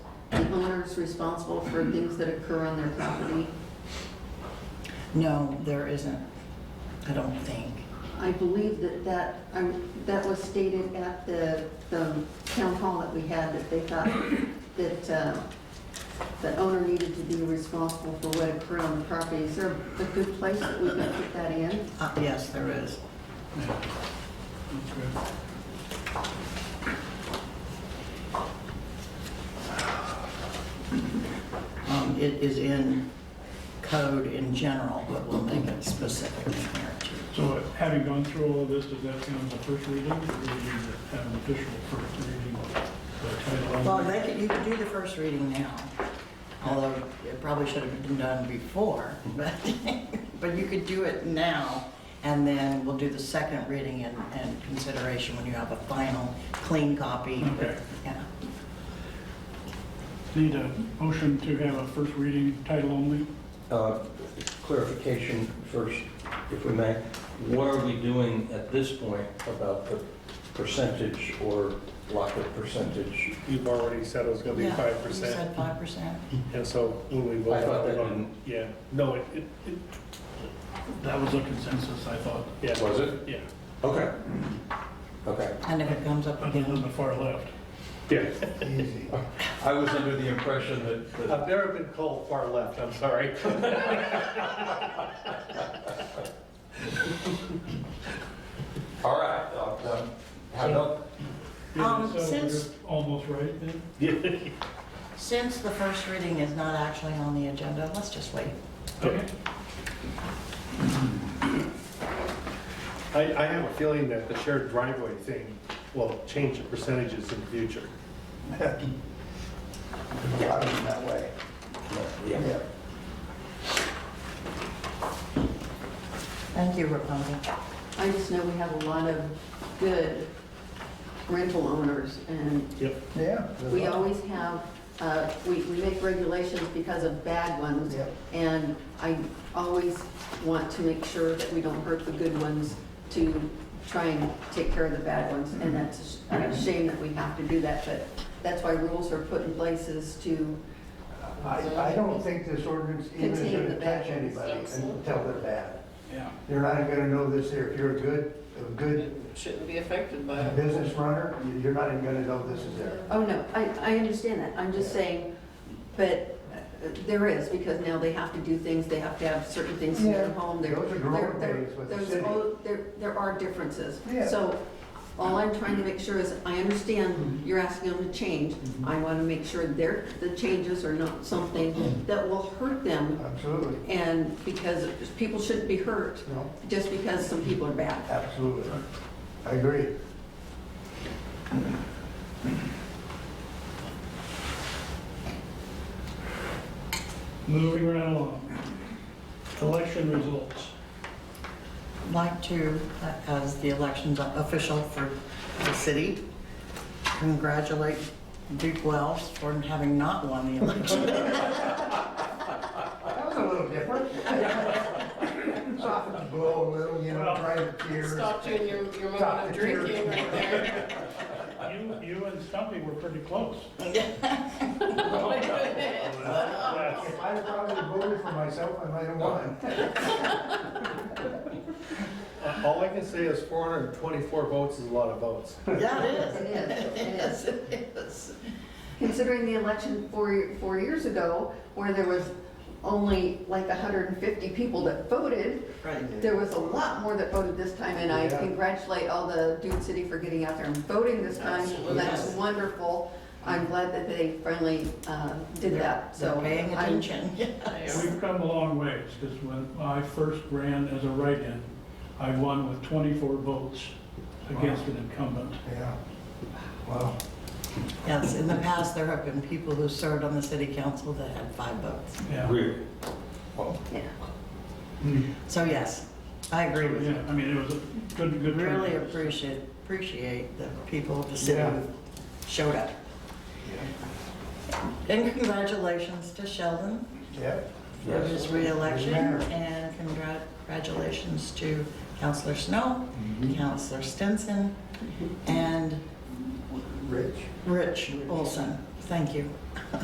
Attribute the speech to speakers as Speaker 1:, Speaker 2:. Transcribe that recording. Speaker 1: property owners responsible for things that occur on their property?
Speaker 2: No, there isn't, I don't think.
Speaker 1: I believe that that, I- that was stated at the, the town hall that we had, that they thought that uh, the owner needed to be responsible for what occurred on the property. Is there a good place that we can put that in?
Speaker 2: Uh, Yes, there is. Um, It is in code in general, but we'll make it specific in here too.
Speaker 3: So having gone through all of this, does that count as a first reading? Or do we need to have an official first reading by title
Speaker 2: Well,
Speaker 3: only?
Speaker 2: they could, you could do the first reading now, although it probably should have been done before, but, but you could do it now, and then we'll do the second reading and, and consideration when you have a final, clean copy.
Speaker 3: Okay.
Speaker 2: Yeah.
Speaker 3: Need a motion to have a first reading title only?
Speaker 4: Uh, Clarification first, if we may. What are we doing at this point about the percentage or lack of percentage?
Speaker 5: You've already said it was gonna be
Speaker 2: Yeah,
Speaker 5: five
Speaker 2: You
Speaker 5: percent,
Speaker 2: said five percent?
Speaker 5: and so when we vote.
Speaker 4: I thought that
Speaker 5: vote-
Speaker 4: didn't-
Speaker 5: Yeah, no, it, it, it-
Speaker 3: That was a consensus, I thought.
Speaker 5: yeah,
Speaker 4: Was it?
Speaker 3: Yeah,
Speaker 4: Okay. Okay.
Speaker 2: And if it comes up
Speaker 3: other than
Speaker 2: again,
Speaker 3: the far left.
Speaker 2: Um,
Speaker 5: yeah.
Speaker 4: I was under the impression that- that,
Speaker 5: I've never been called far left, I'm sorry.
Speaker 4: all right, uh, um, how about,
Speaker 3: Yeah,
Speaker 2: Um,
Speaker 3: so we're
Speaker 2: since-
Speaker 3: Almost right then?
Speaker 2: since the first reading is not actually on the agenda, let's just wait.
Speaker 3: Okay.
Speaker 5: I, I have a feeling that the shared driveway thing will change the percentages in the future.
Speaker 6: Yeah, I mean, that way,
Speaker 4: yeah.
Speaker 6: yeah.
Speaker 2: Thank you, Rapunzel.
Speaker 1: I just know we have a lot of good rental owners, and
Speaker 5: Yep.
Speaker 6: Yeah.
Speaker 1: we always have, uh, we we make regulations because of bad ones,
Speaker 6: Yep.
Speaker 1: and I always want to make sure that we don't hurt the good ones to try and take care of the bad ones, and that's a sh- a shame that we have to do that, but that's why rules are put in places to,
Speaker 6: I, I don't think this ordinance even is
Speaker 1: Contain the
Speaker 6: gonna
Speaker 1: bad
Speaker 6: touch
Speaker 1: ones,
Speaker 6: anybody
Speaker 1: yes.
Speaker 6: until they're bad.
Speaker 3: Yeah.
Speaker 6: They're not gonna know this here. If you're a good, a good
Speaker 7: shouldn't be affected by it.
Speaker 6: business runner, you- you're not even gonna know this is there.
Speaker 1: oh, no, I, I understand that, I'm just saying, but uh, there is, because now they have to do things, they have to have certain things in their
Speaker 6: Yeah.
Speaker 1: home, they're
Speaker 6: Those are growing
Speaker 1: There- there-
Speaker 6: pains with the
Speaker 1: there's
Speaker 6: city.
Speaker 1: all- There, there are differences.
Speaker 6: Yeah.
Speaker 1: So all I'm trying to make sure is, I
Speaker 6: Mm-hmm.
Speaker 1: understand you're asking them to change.
Speaker 6: Mhm.
Speaker 1: I want to make sure their, the changes are not
Speaker 6: Mm-hmm.
Speaker 1: something that will hurt them
Speaker 6: Absolutely,
Speaker 1: and because people shouldn't be hurt
Speaker 6: no,
Speaker 1: just because some people are bad.
Speaker 6: absolutely. I agree.
Speaker 3: Moving right along. Election results.
Speaker 2: like to, uh, as the elections official for the city, congratulate Duke Wells for having not won the election.
Speaker 6: That was a little different. Soften the blow a little, you know, dry the tears.
Speaker 7: Stopped you in your, your
Speaker 6: Stop
Speaker 7: moment of
Speaker 6: the tears.
Speaker 7: drinking right there.
Speaker 3: You, you and Stumpy were pretty close. Oh,
Speaker 7: My goodness.
Speaker 6: If I had probably voted for myself, I might have won.
Speaker 5: Uh, All I can say is four hundred and twenty-four votes is a lot of votes.
Speaker 2: Yeah,
Speaker 1: It
Speaker 2: it
Speaker 1: is, it is.
Speaker 2: is. Yes, it is.
Speaker 1: considering the election four, four years ago, where there was only like 150 people that voted,
Speaker 2: Right.
Speaker 1: there was a lot more that voted this time, and I
Speaker 6: Yeah.
Speaker 1: congratulate all the Dune City for getting out there and voting this time.
Speaker 2: Absolutely.
Speaker 1: That's wonderful. I'm glad that they finally uh, did that, so.
Speaker 2: They're paying
Speaker 1: I'm-
Speaker 2: attention.
Speaker 3: We've come a long ways, because when I first ran as a write-in, I won with 24 votes against an incumbent.
Speaker 6: Yeah. Wow.
Speaker 2: Yes, in the past, there have been people who served on the city council that had five votes.
Speaker 3: Yeah.
Speaker 4: Really? Well,
Speaker 1: Yeah.
Speaker 2: So yes, I agree with you.
Speaker 3: Yeah, I mean, it was a good, good. turnout.
Speaker 2: Really appreciate, appreciate the people of the city
Speaker 6: Yeah.
Speaker 2: who showed up. And congratulations to Sheldon
Speaker 6: Yeah.
Speaker 2: for his reelection,
Speaker 6: Mayor.
Speaker 2: and congrat- congratulations to Counselor Snow, Counselor Stinson, and
Speaker 6: Rich.
Speaker 2: Rich Olson. Thank you.